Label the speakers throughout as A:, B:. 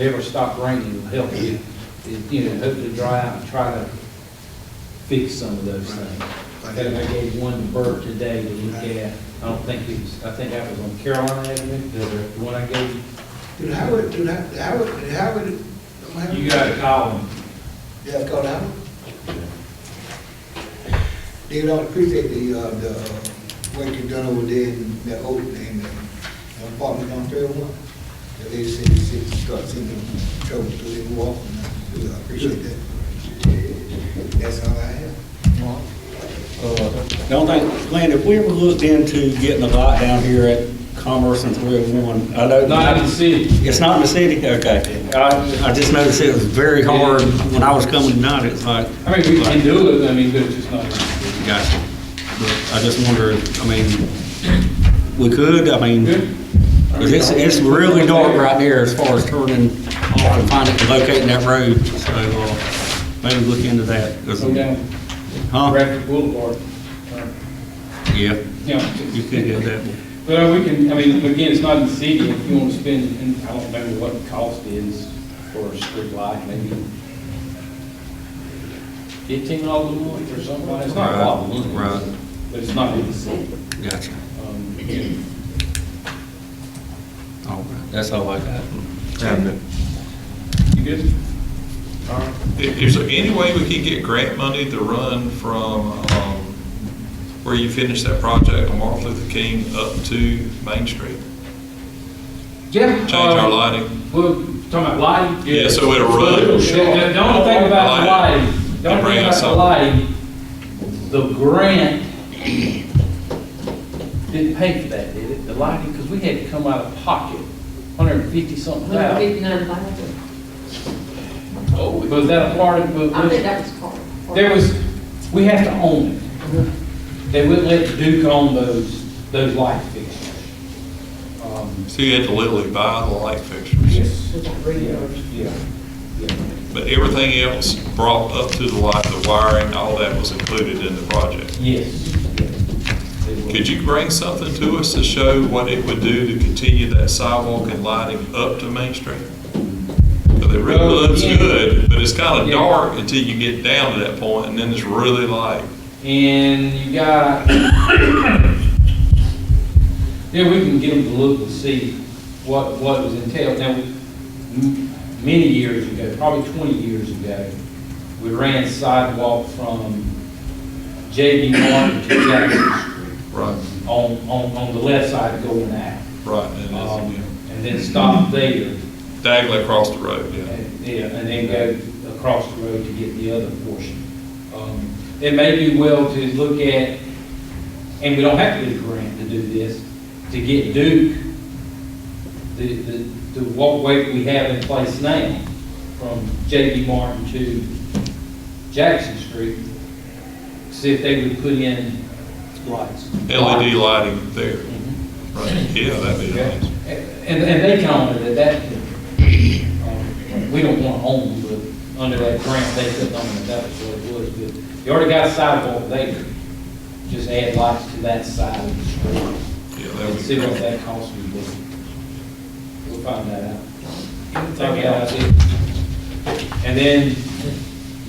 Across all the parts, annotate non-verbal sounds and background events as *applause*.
A: ever stop raining will help you, It- you know, hope to dry out and try to fix some of those things. I think I gave one to Bert today to look at, I don't think it was, I think that was on Carolina Avenue, the one I gave you.
B: Did Howard, did Howard, did Howard, did Howard? don't have-
A: You gotta call them.
B: Yeah, I've called Howard. David, I appreciate the, uh, the work you've done over there in that old, in the apartment on thirty-one. The lady said, she said, she started seeing the trouble through the wall, and I appreciate that. That's all I have. Mark?
C: The only thing, Glenn, if we ever looked into getting a lot down here at Commerce and 301, I know.
A: Not in the city.
C: It's not in the city, okay. I, I just noticed it was very hard when I was coming tonight, it's like.
A: I mean, we can do it, I mean, but it's just not.
C: Gotcha. But I just wonder, I mean, we could, I mean, because it's, it's really dark right there as far as turning off and finding, locating that road, so, uh, maybe look into that. 'cause-
A: Go down
C: Huh?
A: Bradford Boulevard. Uh,
C: Yeah,
A: Yeah.
C: you could do that.
A: Well, uh, we can, I mean, again, it's not in the city, if you want to spend, and I don't know what the cost is for a street light, maybe fifteen dollars a month or something, it's not a lot of
C: Right, right.
A: money. But it's not in the city.
C: Gotcha.
A: Um,
C: All right, that's all I got.
A: You good? All right.
D: Is there any way we could get grant money to run from um, where you finished that project on Martin Luther King up to Main Street?
A: Yeah.
D: Change our
A: uh,
D: lighting?
A: Well, talking about lighting?
D: Yeah, so it'll run.
A: The the- the only thing about the
D: Lighting.
A: lighting, the only
D: Bring
A: thing about
D: us
A: the
D: up.
A: lighting, the grant didn't pay for that, did it? The lighting, because we had to come out of pocket, hundred and fifty something thousand.
E: 159,000.
A: Was that a part of, was-
E: I think that was part. part-
A: there was, we have to own it. They wouldn't let Duke own those, those light fixtures. Um,
D: So you had to literally buy the light fixtures.
A: Yes.
E: Was that radio?
A: Yeah, yeah.
D: But everything else brought up to the light, the wiring, all that was included in the project.
A: Yes.
D: Could you bring something to us to show what it would do to continue that sidewalk and lighting up to Main Street? Because it really
A: Well,
D: looks
A: Um, yeah.
D: good, but it's kind of
A: Yeah.
D: dark until you get down to that point, and then it's really light.
A: And you got, *coughs* yeah, we can get them to look and see what, what was entailed. Now, m- many years ago, probably twenty years ago, we ran sidewalk from JB Martin to Jackson Street
D: Right.
A: on, on, on the left side going out.
D: Right, and
A: Um,
D: it's
A: And then stopped there.
D: diagonally across the road, yeah.
A: And- Yeah, and then go across the road to get the other portion. Um, It may be well to look at, and we don't have to get a grant to do this, to get Duke, the, the, the walkway we have in place now, from J.B. Martin to Jackson Street, see if they would put in lights.
D: LED E lighting there,
A: Mhm.
D: right, yeah, that'd be nice.
A: And, and they can own it at that, um, we don't want to own, but under that grant, they couldn't own it, that was what it was, but you already got a sidewalk there, just add lights to that side of the street,
D: Yeah,
A: and
D: that'd be
A: see what
D: great.
A: that costs me, we'll find that out. Take out it. And then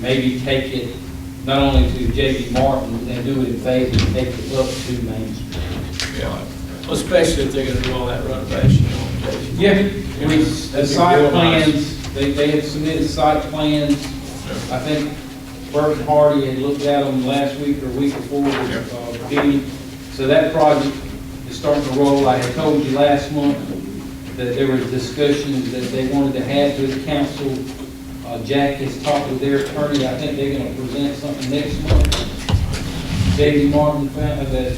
A: maybe take it, not only to J.B. Martin, then do it in phases, take it up to Main Street.
D: Yeah.
F: Especially if they're gonna do all that renovation on Jackson.
A: Yeah, I mean, the site plans, they, they had submitted site plans. I think Bert and Hardy had looked at them last week or week before with uh, Dean. So that project is starting to roll. I had told you last month that there was discussions that they wanted to have with the council. Uh, Jack has talked with their attorney. I think they're gonna present something next month. Davey Martin found that,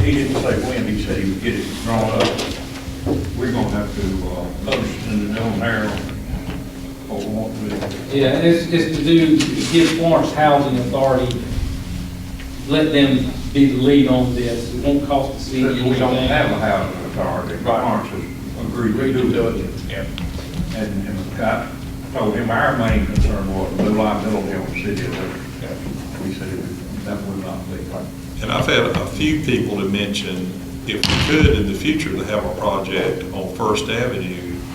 G: He didn't say when, he said he would get it drawn up. We're gonna have to, uh, post in the own there, or want to,
A: Yeah, it's, it's to do, give Florence Housing Authority, let them be the lead on this, it won't cost the city
G: since
A: anything.
G: we don't have a housing authority, Barnes has agreed to do it.
D: Yeah.
G: And, and I told him our main concern was the liability on the city of Livingston. We said it- that would not be right.
D: And I've had a few people to mention, if we could in the future to have a project on First Avenue